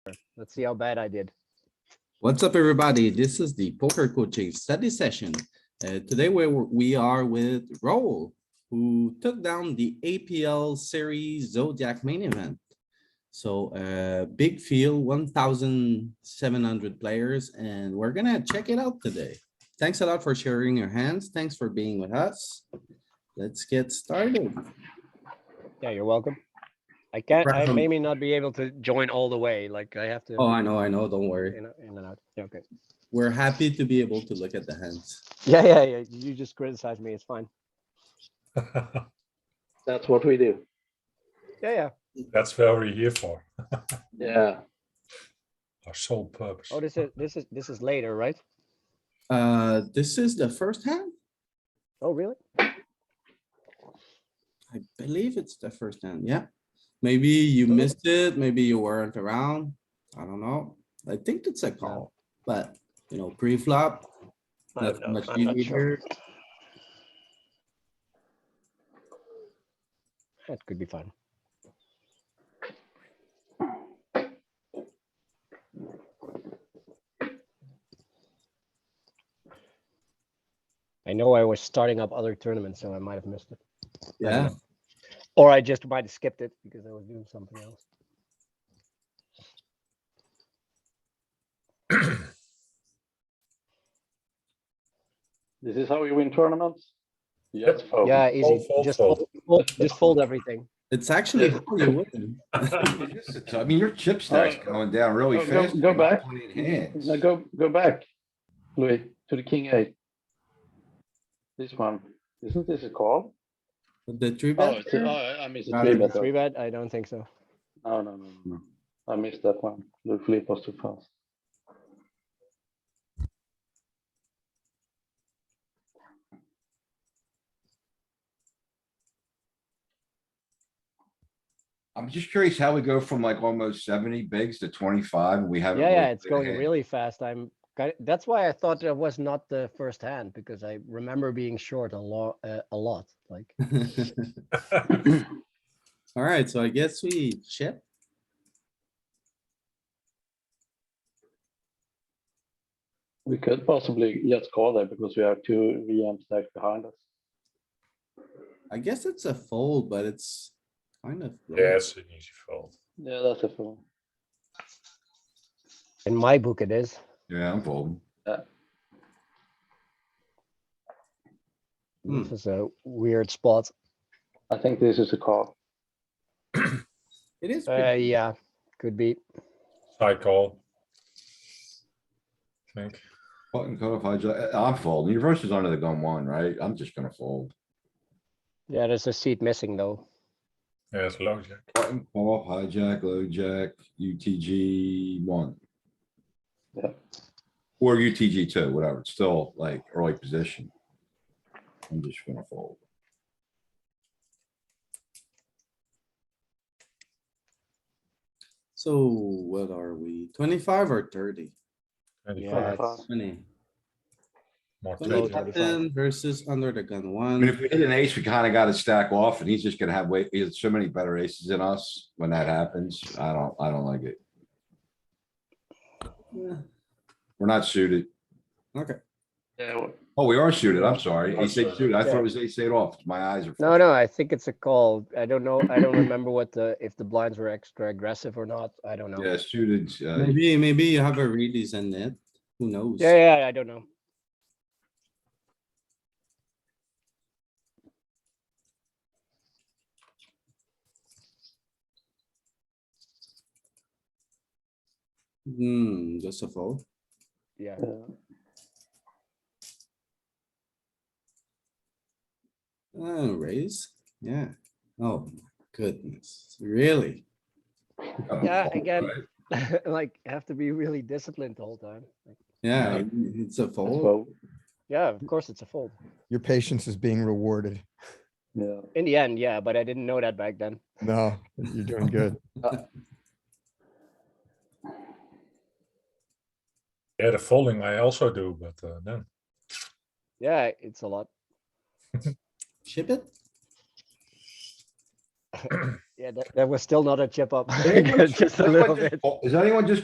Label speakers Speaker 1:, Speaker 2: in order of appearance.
Speaker 1: Let's see how bad I did.
Speaker 2: What's up, everybody? This is the Poker Coaching Study Session. Uh, Today, we were- we are with Raoul, who took down the APL Series Zodiac Main Event. So uh, big field, 1,700 players, and we're gonna check it out today. Thanks a lot for sharing your hands. Thanks for being with us. Let's get started.
Speaker 1: Yeah, you're welcome. I can't, I
Speaker 2: Round.
Speaker 1: may may not be able to join all the way, like I have to.
Speaker 2: Oh, I know, I know, don't worry.
Speaker 1: In in and out. Yeah, okay.
Speaker 2: We're happy to be able to look at the hands.
Speaker 1: Yeah, yeah, yeah. You just criticize me. It's fine.
Speaker 3: That's what we do.
Speaker 1: Yeah, yeah.
Speaker 4: That's what we're here for,
Speaker 3: Yeah.
Speaker 4: our sole purpose.
Speaker 1: Oh, this is, this is, this is later, right?
Speaker 2: Uh, This is the first hand?
Speaker 1: Oh, really?
Speaker 2: I believe it's the first hand, yeah. Maybe you missed it, maybe you weren't around. I don't know. I think it's a call, but you know, pre-flop.
Speaker 1: I don't
Speaker 2: nothing
Speaker 1: know.
Speaker 2: much
Speaker 1: uh, I'm not
Speaker 2: you
Speaker 1: sure.
Speaker 2: hear.
Speaker 1: That could be fun. I know I was starting up other tournaments, so I might have missed it.
Speaker 2: Yeah,
Speaker 1: Or I just might have skipped it because I was doing something else.
Speaker 3: This is how you win tournaments? Yes.
Speaker 1: Yeah, easy.
Speaker 4: fold, fold,
Speaker 1: Just
Speaker 4: fold.
Speaker 1: fold, fold- just fold everything.
Speaker 2: it's actually, how you win.
Speaker 5: It is the t- I mean, your chip stack's
Speaker 3: Uh,
Speaker 5: going down really
Speaker 3: go-
Speaker 5: fast.
Speaker 3: go
Speaker 5: with
Speaker 3: back.
Speaker 5: point in hands.
Speaker 3: Now go, go back, Louis, to the king eight. This one, isn't this a call?
Speaker 2: the three
Speaker 3: Oh,
Speaker 2: bet.
Speaker 3: it's a-
Speaker 2: here,
Speaker 3: oh, I missed
Speaker 2: Not a
Speaker 3: it. Three
Speaker 2: Yeah,
Speaker 3: bet.
Speaker 1: Three bet? I don't think so.
Speaker 3: No, no, no, no, no. I missed that one. The flip was too fast.
Speaker 5: I'm just curious how we go from like almost seventy bigs to twenty-five and we
Speaker 1: Yeah,
Speaker 5: haven't.
Speaker 1: yeah,
Speaker 5: really
Speaker 1: it's
Speaker 5: played a
Speaker 1: going
Speaker 5: hand.
Speaker 1: really fast. I'm, ki- that's why I thought that was not the first hand because I remember being short a lot, a lot, like.
Speaker 2: Alright, so I guess we chip.
Speaker 3: We could possibly just call there because we have two VM stacks behind us.
Speaker 2: I guess it's a fold, but it's kind of. low.
Speaker 4: Yeah, it's an easy fold.
Speaker 3: Yeah, that's a fool.
Speaker 1: In my book, it is.
Speaker 5: Yeah, I'm folding.
Speaker 2: Hmm.
Speaker 1: This is a weird spot.
Speaker 3: I think this is a call.
Speaker 2: It is,
Speaker 1: Uh,
Speaker 2: pretty-
Speaker 1: yeah, could be.
Speaker 4: Side call. Think,
Speaker 5: Button cutoff hijack, I- I'm folding. Your versus under the gun one, right? I'm just gonna fold.
Speaker 1: Yeah, there's a seat missing though.
Speaker 4: yeah, it's low jack.
Speaker 5: Button cutoff hijack, low jack, UTG one.
Speaker 3: Yeah.
Speaker 5: Or UTG two, whatever. It's still like early position. I'm just gonna fold.
Speaker 2: so what are we, twenty-five or thirty?
Speaker 1: Yeah,
Speaker 4: 25,
Speaker 1: it's-
Speaker 2: Twenty.
Speaker 4: more
Speaker 1: Below
Speaker 4: 20.
Speaker 1: 25.
Speaker 2: Ten versus under the gun
Speaker 5: I
Speaker 2: one.
Speaker 5: mean, if we hit an ace, we kinda gotta stack off and he's just gonna have way, he has so many better aces than us when that happens. I don't, I don't like it.
Speaker 2: Yeah,
Speaker 5: We're not suited.
Speaker 2: Okay.
Speaker 3: Yeah, well,
Speaker 5: Oh, we are suited. I'm sorry.
Speaker 4: Are
Speaker 5: Ace eight
Speaker 4: suited.
Speaker 5: suited. I thought
Speaker 1: Yeah.
Speaker 5: it was ace eight off. My eyes are.
Speaker 1: No, no, I think it's a call. I don't know. I don't remember what the, if the blinds were extra aggressive or not. I don't know.
Speaker 5: Yeah, suited. uh,
Speaker 2: Maybe, maybe you have a release in it, who knows?
Speaker 1: Yeah, yeah, I don't know.
Speaker 2: Hmm, just a fold.
Speaker 1: Yeah,
Speaker 3: yeah.
Speaker 2: Uh, raise, yeah. Oh, my goodness, really?
Speaker 5: uh,
Speaker 1: yeah,
Speaker 5: fault,
Speaker 1: again,
Speaker 5: right?
Speaker 1: like have to be really disciplined the whole time. Like,
Speaker 2: Yeah, it- it's a
Speaker 3: That's
Speaker 1: Oh.
Speaker 2: fold.
Speaker 3: well,
Speaker 1: Yeah, of course it's a fold.
Speaker 6: Your patience is being rewarded.
Speaker 3: Yeah.
Speaker 1: In the end, yeah, but I didn't know that back then.
Speaker 6: No, you're doing good.
Speaker 4: Yeah, the folding I also do, but uh, no.
Speaker 1: Yeah, it's a lot.
Speaker 2: Chip it?
Speaker 1: Yeah, that, that was still not a chip up.
Speaker 5: Anyone
Speaker 1: Just a
Speaker 5: Anyone
Speaker 1: little
Speaker 5: just
Speaker 1: bit.
Speaker 5: call- Is anyone just